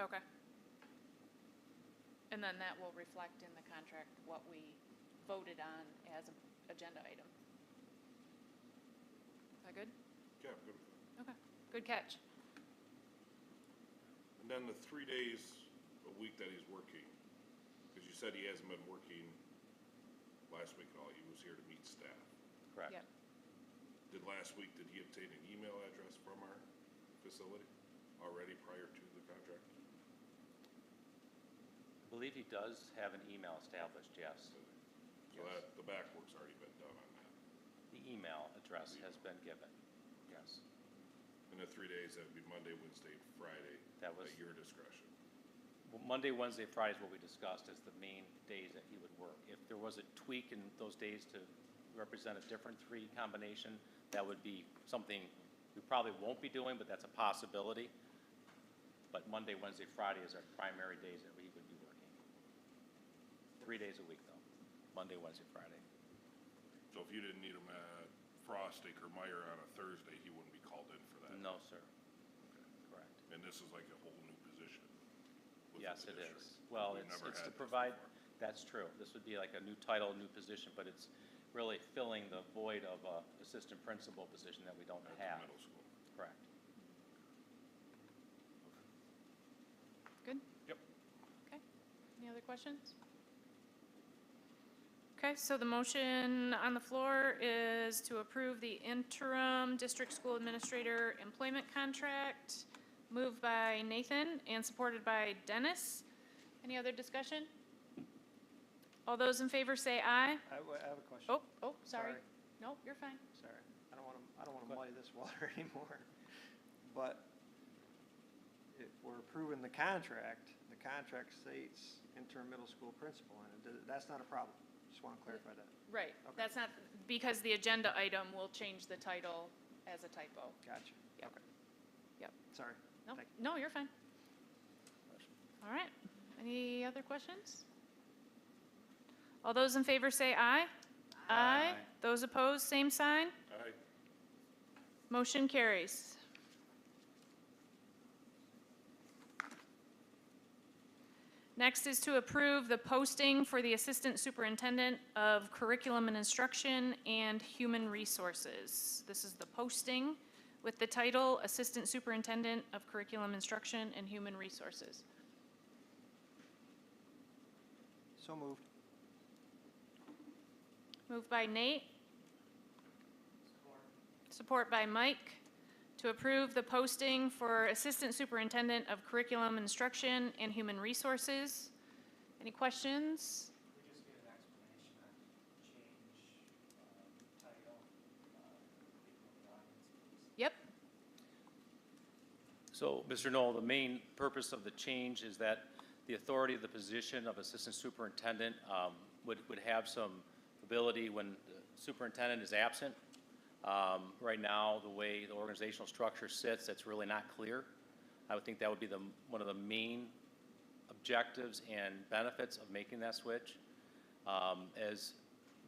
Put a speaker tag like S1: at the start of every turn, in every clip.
S1: Okay. And then that will reflect in the contract what we voted on as an agenda item. Is that good?
S2: Yeah, I'm good with that.
S1: Okay, good catch.
S2: And then the three days a week that he's working, because you said he hasn't been working last week at all, he was here to meet staff.
S3: Correct.
S1: Yep.
S2: Did last week, did he obtain an email address from our facility already prior to the contract?
S3: I believe he does have an email established, yes.
S2: So that, the back work's already been done on that.
S3: The email address has been given, yes.
S2: And the three days, that'd be Monday, Wednesday, and Friday.
S3: That was-
S2: At your discretion.
S3: Well, Monday, Wednesday, Friday is what we discussed as the main days that he would work. If there was a tweak in those days to represent a different three combination, that would be something we probably won't be doing, but that's a possibility. But Monday, Wednesday, Friday is our primary days that we would be working. Three days a week, though, Monday, Wednesday, Friday.
S2: So if you didn't need him at Frostic or Meyer on a Thursday, he wouldn't be called in for that?
S3: No, sir,
S2: Okay.
S3: correct.
S2: And this is like a whole new position? within
S3: Yes,
S2: the
S3: it
S2: district.
S3: is. Well,
S2: We've
S3: it's,
S2: never
S3: it's
S2: had
S3: to
S2: this
S3: provide,
S2: before.
S3: that's true. This would be like a new title, new position, but it's really filling the void of a assistant principal position that we don't
S2: At the
S3: have.
S2: middle school.
S3: Correct.
S1: Good?
S2: Yep.
S1: Okay. Any other questions? Okay, so the motion on the floor is to approve the interim district school administrator employment contract, moved by Nathan and supported by Dennis. Any other discussion? All those in favor say aye.
S4: I w- I have a question.
S1: Oh, oh, sorry.
S4: Sorry.
S1: No, you're fine.
S4: Sorry, I don't want to, I don't want
S3: Go
S4: to muddy this water anymore. But if we're approving the contract, the contract states interim middle school principal, and it does- that's not a problem. Just want to clarify that.
S1: Right,
S4: Okay.
S1: that's not, because the agenda item will change the title as a typo.
S4: Gotcha.
S1: Yep.
S4: Okay.
S1: Yep.
S4: Sorry.
S1: No,
S4: Thank you.
S1: no, you're fine. All right, any other questions? All those in favor say aye. Aye. Those opposed, same sign.
S2: Aye.
S1: Motion carries. Next is to approve the posting for the Assistant Superintendent of Curriculum and Instruction and Human Resources. This is the posting with the title Assistant Superintendent of Curriculum Instruction and Human Resources.
S4: So moved.
S1: Moved by Nate. Support by Mike to approve the posting for Assistant Superintendent of Curriculum Instruction and Human Resources. Any questions?
S5: We just get an explanation on change, uh, title, uh, people in the audience, please.
S1: Yep,
S3: So, Mr. Knoll, the main purpose of the change is that the authority of the position of assistant superintendent um, would, would have some ability when the superintendent is absent. Um, Right now, the way the organizational structure sits, that's really not clear. I would think that would be the, one of the main objectives and benefits of making that switch, um, as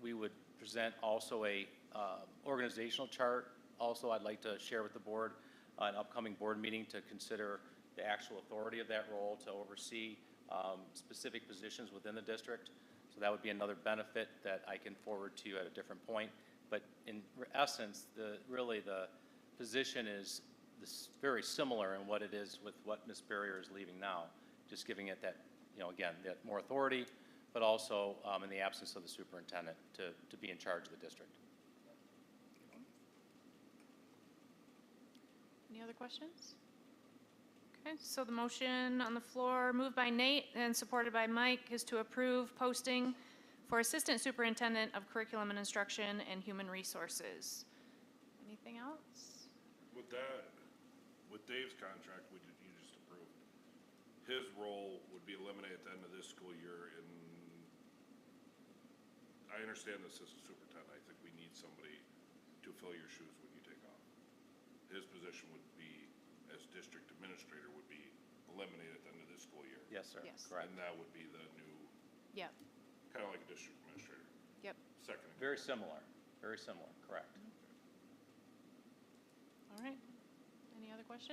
S3: we would present also a uh, organizational chart. Also, I'd like to share with the board an upcoming board meeting to consider the actual authority of that role to oversee um, specific positions within the district. So that would be another benefit that I can forward to you at a different point. But in re- essence, the, really, the position is this- very similar in what it is with what Ms. Barrier is leaving now, just giving it that, you know, again, that more authority, but also um, in the absence of the superintendent to, to be in charge of the district.
S1: any other questions? Okay, so the motion on the floor, moved by Nate and supported by Mike, is to approve posting for Assistant Superintendent of Curriculum and Instruction and Human Resources. Anything else?
S2: With that, with Dave's contract, we did, you just approved, his role would be eliminated at the end of this school year and I understand the assistant superintendent, I think we need somebody to fill your shoes when you take off. His position would be, as district administrator, would be eliminated at the end of this school year.
S3: Yes, sir.
S1: Yes.
S2: And
S3: Correct.
S2: that would be the new,
S1: Yep,
S2: kinda like a district administrator,
S1: yep.
S2: second. in
S3: Very similar, very similar, correct.
S1: All right. Any other questions?